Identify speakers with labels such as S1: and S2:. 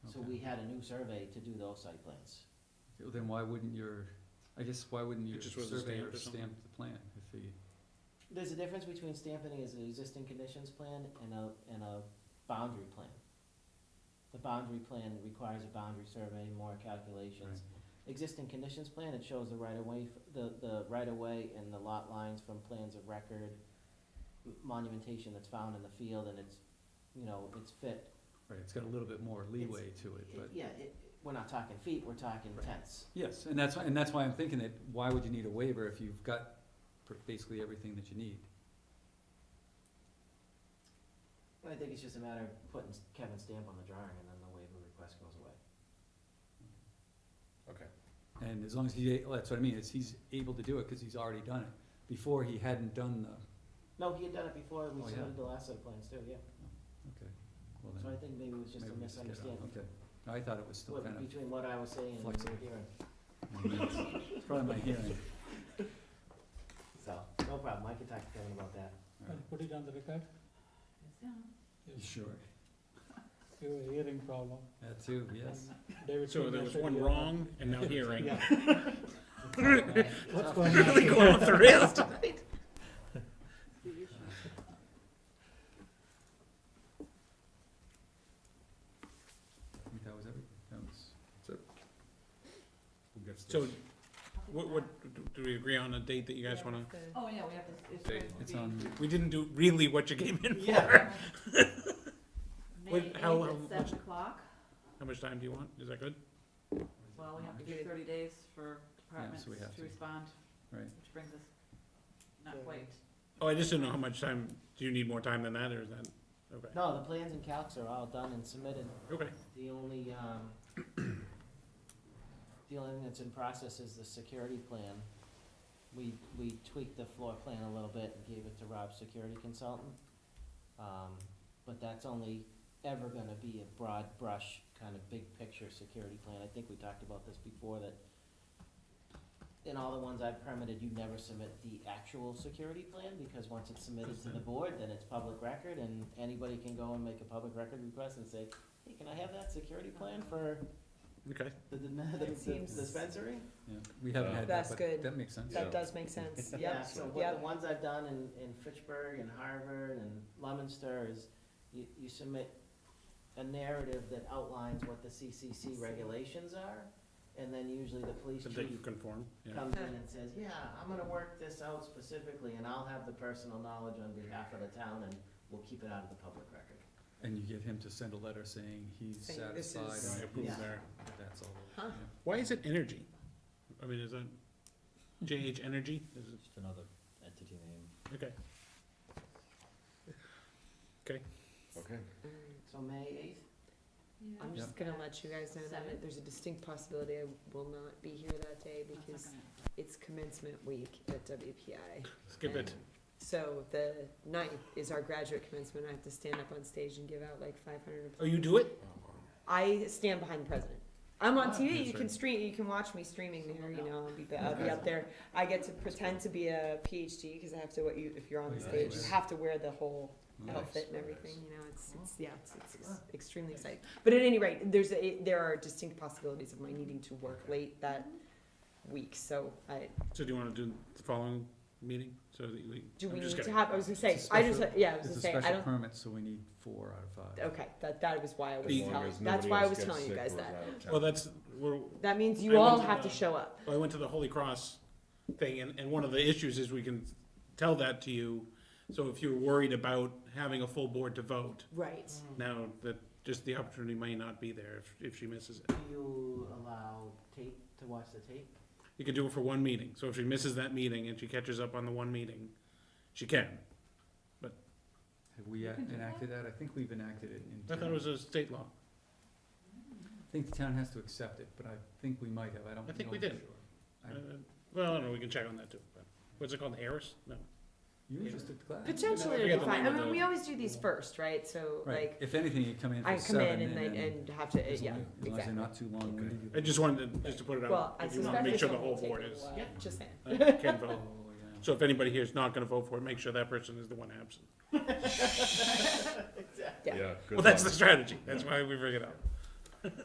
S1: had a new survey to do those site plans.
S2: Then why wouldn't your, I guess, why wouldn't
S3: It
S2: your
S3: just wasn't
S2: surveyor
S3: stamped or something?
S2: stamp the plan if he,
S1: There's a difference between stamping as an existing conditions plan and a, and a boundary plan. The boundary plan requires a boundary survey, more calculations. Existing conditions plan, it shows the right of way, f- the, the right of way and the lot lines from plans of record, m- monumentation that's found in the field and it's, you know, it's fit.
S2: right, it's got a little bit more leeway to it, but,
S1: Yeah, it, we're not talking feet, we're talking
S2: Right.
S1: tenths.
S2: yes, and that's, why- and that's why I'm thinking that, why would you need a waiver if you've got pr- basically everything that you need?
S1: I think it's just a matter of putting Kevin's stamp on the drawing and then the waiver request goes away.
S3: Okay.
S2: And as long as he, well, that's what I mean, is he's able to do it, cause he's already done it, before he hadn't done the,
S1: No, he had done it before,
S2: Oh,
S1: we
S2: yeah.
S1: submitted the last site plans too, yeah,
S2: well
S1: so
S2: then.
S1: I think maybe it was just a
S2: maybe we just get out.
S1: misunderstanding.
S2: Okay, No, I thought it was still
S1: What-
S2: kind of,
S1: Between what I was saying and what you were
S2: flexible.
S1: hearing,
S2: it's probably my hearing.
S1: so, no problem, I can talk to Kevin about that.
S2: All right.
S4: I'll put it on the record,
S2: Sure,
S4: you have a hearing problem.
S2: that too, yes.
S4: David
S3: So
S4: Fincher
S3: there was
S4: said
S3: one
S4: you are-
S3: wrong and now hearing.
S4: Yeah. What's
S1: Tough.
S4: going on?
S3: Really going off the rails tonight.
S2: I think that was everything, that was. Who gets
S3: So,
S2: this?
S3: what, what, do we agree on a date that you guys wanna,
S5: Oh, yeah, we have to, it's.
S3: They-
S5: going to
S2: It's
S5: be
S2: on,
S3: we didn't do really what you came in
S1: Yeah.
S3: for.
S5: May
S3: Wait,
S5: eighth
S3: how- how
S5: at
S3: much-
S5: seven o'clock,
S3: How much time do you want? Is that good?
S5: well, we have to give thirty days for departments
S2: we have
S5: to
S2: to.
S5: respond,
S2: right,
S5: which brings us,
S1: Yeah.
S5: not quite.
S3: Oh, I just didn't know how much time, do you need more time than that or is that, okay,
S1: No, the plans and calcs are all done and submitted,
S3: okay.
S1: the only, um, the only thing that's in process is the security plan. We, we tweaked the floor plan a little bit and gave it to Rob's security consultant. Um, but that's only ever gonna be a broad brush, kind of big picture security plan. I think we talked about this before, that in all the ones I've permitted, you never submit the actual security plan, because once it's submitted to the board, then it's public record, and anybody can go and make a public record request and say, hey, can I have that security plan for
S3: Okay.
S1: the, the, the-
S6: That
S1: the
S6: seems-
S1: dispensary?
S2: yeah, we haven't
S3: Yeah.
S2: had that,
S6: That's
S2: but
S6: good.
S2: that makes sense.
S6: That does make sense,
S1: Yeah,
S6: yep,
S1: so what, the
S6: yep,
S1: ones I've done in, in Fitchburg and Harvard and Leominster is, you, you submit a narrative that outlines what the CCC regulations are, and then usually the police
S3: So
S1: chief
S3: that you conform, yeah.
S1: comes in and says, yeah, I'm gonna work this out specifically, and I'll have the personal knowledge on behalf of the town, and we'll keep it out of the public record.
S2: And you get him to send a letter saying he's
S6: Saying this
S2: satisfied,
S6: is-
S3: I
S2: and
S3: approve
S1: Yeah.
S3: there.
S2: that's all.
S6: Huh.
S2: yeah.
S3: Why is it energy? I mean, is that JH Energy? Is it,
S1: Just another entity name.
S3: okay.
S1: Okay. So May eighth?
S6: I'm just gonna let you guys know that there's a distinct possibility I will not be here that day because it's commencement week at WPI.
S3: Skip it.
S6: So the ninth is our graduate commencement, I have to stand up on stage and give out like five hundred.
S3: Oh, you do it?
S6: I stand behind the president. I'm on
S2: Ah,
S6: TV.
S2: that's
S6: You can
S2: right.
S6: stream. You can watch me streaming there. You know, I'll be, I'll be up there. I get to pretend to be a PhD because I have to. What you if you're on the
S2: Nice.
S6: stage, you have to wear the whole
S2: Nice.
S6: outfit and everything. You know, it's, it's yeah, it's, it's, it's extremely exciting. But at any rate, there's a, there are distinct possibilities of my needing to work late that week. So I
S3: So do you wanna do the following meeting? So that we,
S6: do we
S3: I'm just
S6: need to
S3: kidding.
S6: have? I was gonna say.
S2: It's a
S6: I just
S2: special-
S6: yeah. I was
S2: It's
S6: gonna
S2: a
S6: say. I
S2: special
S6: don't.
S2: permit, so we need four out of five.
S6: Okay, that that was why I was
S3: As long
S6: telling. That's why I was telling you guys that.
S3: Well, that's, we're,
S6: That means
S3: I
S6: you all
S3: went to
S6: have to
S3: the-
S6: show up.
S3: I went to the Holy Cross thing and, and one of the issues is we can tell that to you. So if you're worried about having a full board to vote,
S6: Right.
S1: Mm.
S3: now that, just the opportunity may not be there if, if she misses it.
S1: Do you allow tape, to watch the tape?
S3: You can do it for one meeting. So if she misses that meeting and she catches up on the one meeting, she can.
S2: Have we uh,
S5: can do that?
S2: enacted that? I think we've enacted it in.
S3: I thought it
S2: town.
S3: was a state law.
S2: I think the town has to accept it, but I think we might have, I don't know.
S3: I think we
S2: for
S3: did.
S2: sure.
S3: Uh,
S2: I-
S3: Well, I don't know, we can check on that too, but, what's it called, Harris? No.
S2: You were just at the class.
S6: Potentially,
S3: We got
S6: it'd be
S3: the
S6: fine. I
S3: name of
S6: mean,
S3: the-
S6: we always do these first, right? So
S2: Right,
S6: like,
S2: if anything, you come in
S6: I
S2: for
S6: come in
S2: seven
S6: and
S2: and
S6: then,
S2: then.
S6: and have to,
S2: as
S6: yeah,
S2: long as- As long as they're
S6: exactly.
S2: not too long, winded you
S3: I
S2: can-
S3: just wanted to, just to put it
S6: Well,
S3: out,
S6: I
S3: if you wanna
S6: suspect
S3: make
S6: this
S3: sure the
S6: one
S3: whole
S6: will take
S3: board
S6: a
S3: is,
S6: while, just saying.
S3: uh, can vote.
S2: Oh, yeah.
S3: So if anybody here is not gonna vote for it, make sure that person is the one absent.
S6: Yeah.
S3: Well, that's the strategy, that's why we bring it up.